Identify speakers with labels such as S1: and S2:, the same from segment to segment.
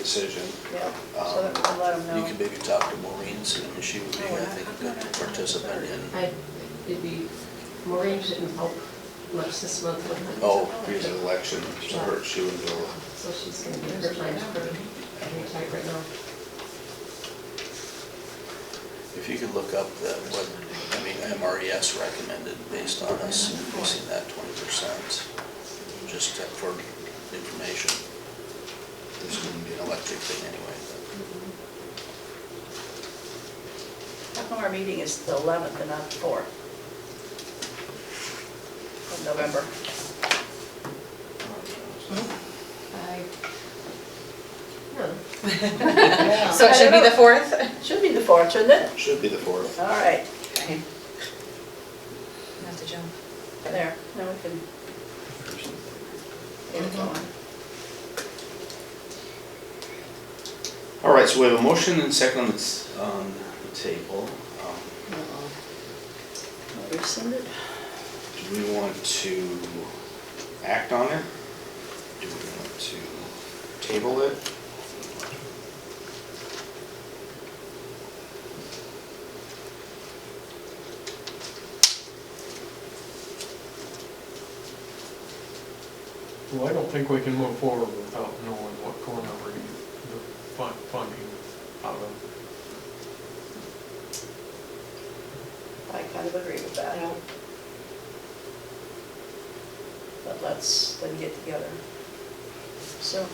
S1: decision. Um,
S2: Yeah, so that we can let them know. Oh,
S1: You can maybe talk to Maureen, see if she would be, I think, a good participant in.
S3: I, it'd be, Maureen didn't help much this month with her.
S1: Oh, here's an election, so her, she would go.
S3: So she's gonna be her time's pretty, pretty tight right now.
S1: If you could look up the, what, I mean, MRES recommended based on us increasing that twenty percent, just to- for information. This wouldn't be an electric thing anyway.
S2: How come our meeting is the 11th and not the 4th? Of November.
S3: I, no.
S4: So it should be the fourth?
S2: Hmm. Should be the 4th, shouldn't it?
S1: but Should be the fourth.
S2: All right,
S4: Not to jump.
S2: there, now we can. get it going.
S1: All right, so we have a motion and second on the s- on the table. Um,
S2: Rescinded?
S1: Do we want to act on it? Do we want to table it?
S5: Well, I don't think we can move forward without knowing what corner we're gonna get the fun- funding out of.
S2: I kind of agree with that. But let's then get together soon.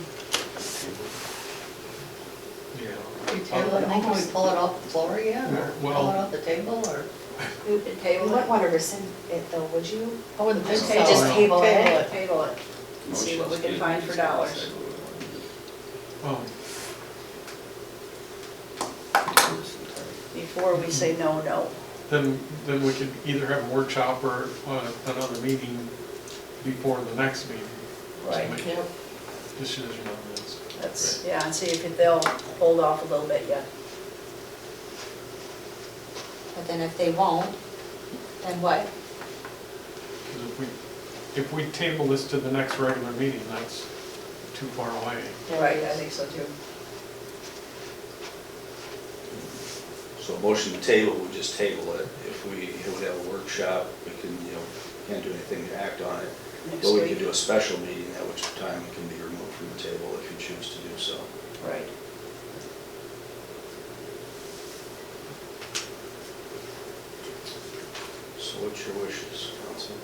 S5: Yeah. Uh,
S6: You table it, can we pull it off the floor again, or pull it
S5: Well-
S6: off the table, or?
S2: You can
S4: You
S2: table
S4: wouldn't
S2: it.
S4: want to rescind it though, would you?
S6: I wouldn't
S2: think
S6: think
S2: so.
S6: so.
S2: Just
S4: table it.
S2: Table it, and see what we can find for dollars.
S5: Um,
S2: Before we say no, no.
S5: Then, then we could either have a workshop or uh, another meeting before the next meeting. to
S2: Right.
S5: make
S3: Yep.
S5: Decision on this.
S2: That's, yeah, and see if they'll hold off a little bit yet.
S4: But then if they won't, then what?
S5: 'Cause if we, if we table this to the next regular meeting, that's too far away.
S2: Right, I think so too.
S1: So a motion to table, we just table it. If we, if we have a workshop, we can, you know, can't do anything to act on it.
S2: Next
S1: But we can
S2: week,
S1: do a special meeting, at which time it can be removed from the table if you choose to do so.
S2: right.
S1: So what's your wishes, council?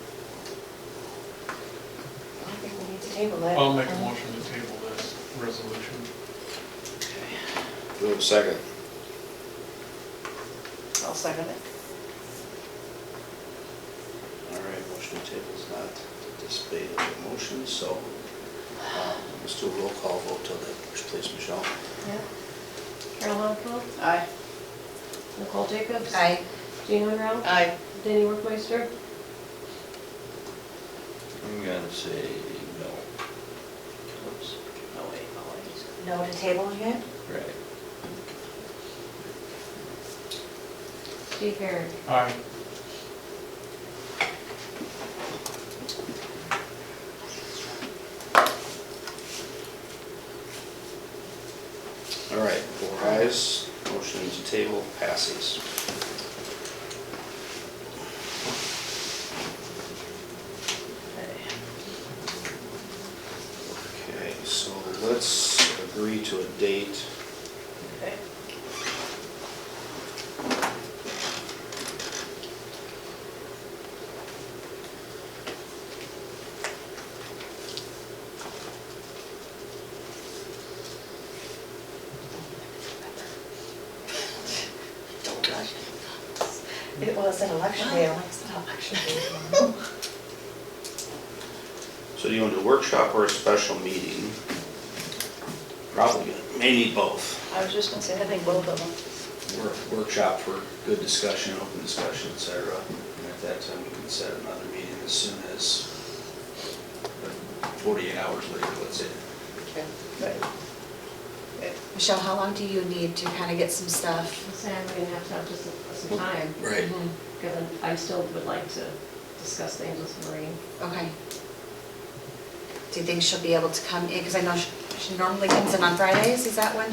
S4: I think we need to table it.
S5: I'll make a motion to table this resolution.
S1: Do we have a second?
S2: I'll second it.
S1: All right, motion to table is not anticipated in the motion, so um, let's do a roll call vote till then, please, Michelle.
S3: Carol Alcock,
S2: Aye.
S3: Nicole Jacobs.
S4: Aye.
S3: Jean Monroe.
S6: Aye.
S3: Danny Workmeister.
S1: I'm gonna say no.
S2: No, wait, no,
S4: No to tabling it?
S1: Right.
S3: Steve Herrick.
S5: Aye.
S1: All right, four ayes, motion to table passes. Okay, so let's agree to a date.
S2: okay.
S4: It was an election day. election day.
S1: So do you want a workshop or a special meeting? Probably, gonna- may need both.
S2: I was just gonna say, I think both of them.
S1: work- workshop for good discussion, open discussion, et cetera. And at that time, we can set another meeting as soon as like, 48 hours later, let's say.
S2: Right.
S4: Michelle, how long do you need to kind of get some stuff? Mm-hmm.
S3: Sam, we're gonna have to have just some time.
S1: Right.
S3: Given, I still would like to discuss things with Maureen.
S4: Okay. Do you think she'll be able to come in? Because I know she- She normally comes in on Fridays, is that when